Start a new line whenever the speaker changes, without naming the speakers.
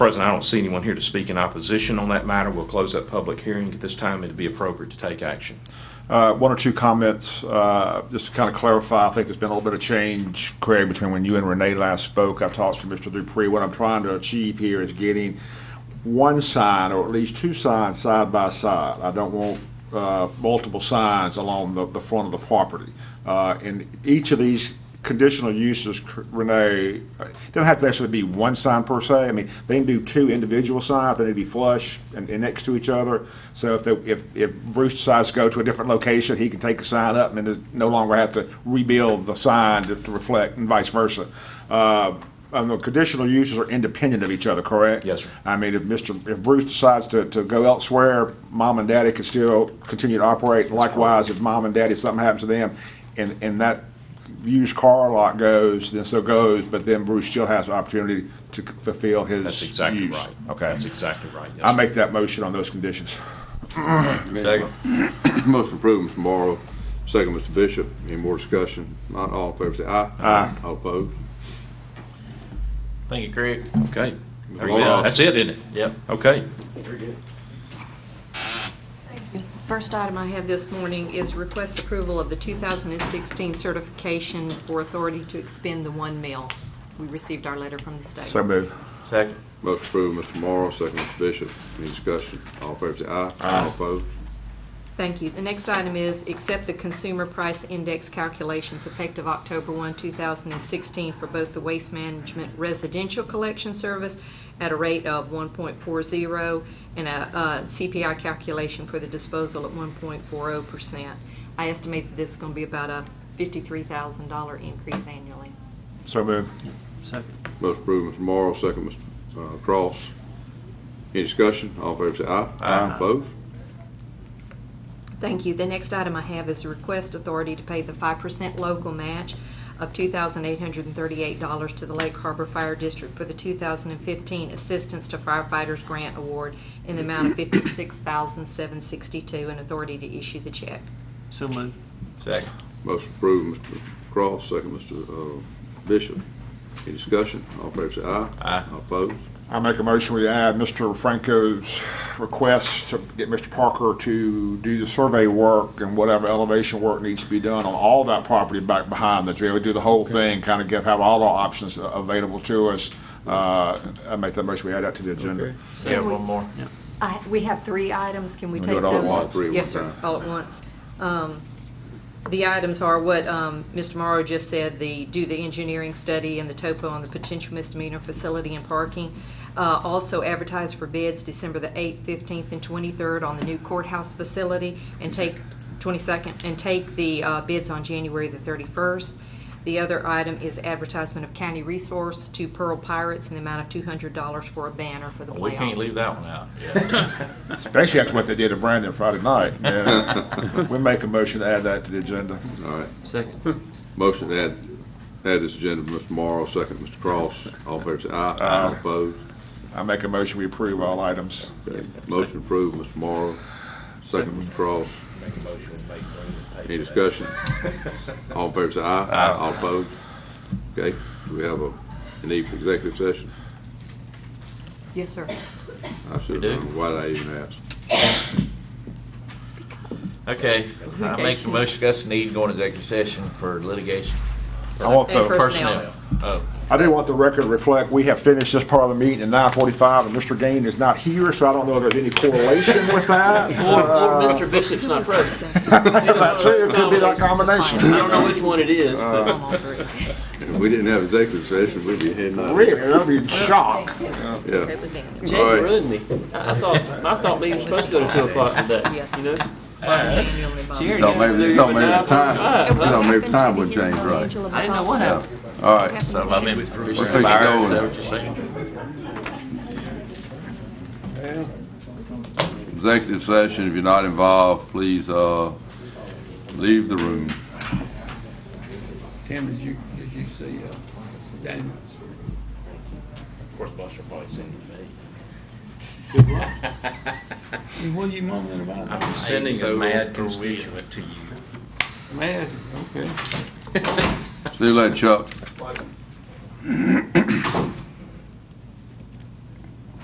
President, I don't see anyone here to speak in opposition on that matter. We'll close that public hearing. At this time, it'd be appropriate to take action.
Uh, One or two comments, uh, just to kind of clarify, I think there's been a little bit of change, Craig, between when you and Renee last spoke. I talked to Mr. Dupree. What I'm trying to achieve here is getting one sign, or at least two signs, side by side. I don't want uh, multiple signs along the, the front of the property. Uh, And each of these conditional uses, cr- Renee, uh, don't have to actually be one sign per se. I mean, they can do two individual signs, they need to be flush and, and next to each other. So if, they- if, if Bruce decides to go to a different location, he can take the sign up and then no longer have to rebuild the sign to, to reflect and vice versa. Uh, I know conditional uses are independent of each other, correct?
Yes, sir.
I mean, if Mr., if Bruce decides to, to go elsewhere, mom and daddy can still continue to operate. Likewise, if mom and daddy, something happens to them, and, and that used car lot goes, then so goes, but then Bruce still has the opportunity to fulfill his
That's exactly
use.
right.
Okay.
That's exactly right. Yes,
I
sir.
make that motion on those conditions.
Second. Motion approved, Mr. Morrow, second, Mr. Bishop. Any more discussion? Not all in favor, say aye. Aye. All opposed?
Thank you, Craig.
Okay. There you
Roll
go.
off.
That's it, isn't it?
Yep.
Okay.
First item I have this morning is request approval of the 2016 certification for authority to expend the one mil. We received our letter from the state.
So move.
Second.
Motion approved, Mr. Morrow, second, Mr. Bishop. Any discussion? All in favor, say aye. Aye. All opposed?
Thank you. The next item is accept the consumer price index calculations effective October 1, 2016 for both the Waste Management Residential Collection Service at a rate of 1.40 and a uh, CPI calculation for the disposal at 1.40%. I estimate that this is going to be about a $53,000 increase annually.
So move.
Motion approved, Mr. Morrow, second, Mr. uh, Cross. Any discussion? All in favor, say aye. Aye. Opposed?
Thank you. The next item I have is a request authority to pay the five percent local match of two thousand eight hundred and thirty-eight dollars to the Lake Harbor Fire District for the two thousand and fifteen Assistance to Firefighters Grant Award in the amount of fifty-six thousand seven sixty-two and authority to issue the check.
So moved. Second.
Motion approved, Mr. Cross, second, Mr. uh, Bishop. Any discussion? All in favor, say aye.
Aye.
All opposed?
I make a motion we add Mr. Franco's request to get Mr. Parker to do the survey work and whatever elevation work needs to be done on all that property back behind the jail. We do the whole thing, kind of give, have all our options a- available to us. Uh, I make that motion we add that to the agenda.
Yeah, one more.
I, we have three items, can we
We
take
do
those?
it all at
once, three at
Yes,
one
sir,
time.
all at once. Um, The items are what um, Mr. Morrow just said, the, do the engineering study and the topo on the potential misdemeanor facility and parking. Uh, Also advertise for bids December the 8th, 15th, and 23rd on the new courthouse facility, and take, 22nd, and take the uh, bids on January the 31st. The other item is advertisement of county resource to Pearl Pirates in the amount of $200 for a banner for the playoffs.
We can't leave that one out.
Basically, that's what they did to Brandon Friday night. man. We make a motion to add that to the agenda.
All right.
Second.
Motion to add, add this agenda, Mr. Morrow, second, Mr. Cross. All in favor, say aye. Aye. Opposed?
I make a motion we approve all items.
Okay. Motion approved, Mr. Morrow, second, Mr. Cross. Any discussion? All in favor, say aye. Aye. All opposed? Okay, do we have a, a need for executive session?
Yes, sir.
I should
We do.
have known, why did I even ask?
Okay, I make the
Litigation.
motion, discuss the need to go into executive session for litigation.
I want the.
And
Personnel. Oh,
I do want the record to reflect, we have finished this part of the meeting at nine forty-five, and Mr. Gain is not here, so I don't know if there's any correlation with that.
Or,
Uh,
Oh.
or Mr. Bishop's not present.
That too, it could be that
I
combination.
don't know which one it is, but
Uh,
Come on through.
If we didn't have executive session, we'd be heading out.
Really, that'd be a shock.
Yeah.
It was Daniel.
Jay
All right.
ruined me. I I thought, I thought we were supposed to go to two o'clock today, you know?
Daniel and Bob.
Jerry
Thought
gets us
maybe-
there
thought
at
maybe the time-
9:45.
You know, maybe
Happened
time
to
would
him
change,
on
right.
Angela
I didn't know
Bobbitt.
what happened.
All right,
so I mean, we
Let's take a go.
Is that what you're saying?
executive session, if you're not involved, please, uh, leave the room.
Tim, did you, did you see, uh, Daniels?
Of course, Buster probably sending me.
What are you mumbling about?
I'm sending a mad constituent to you.
Man, okay.
See you later, Chuck.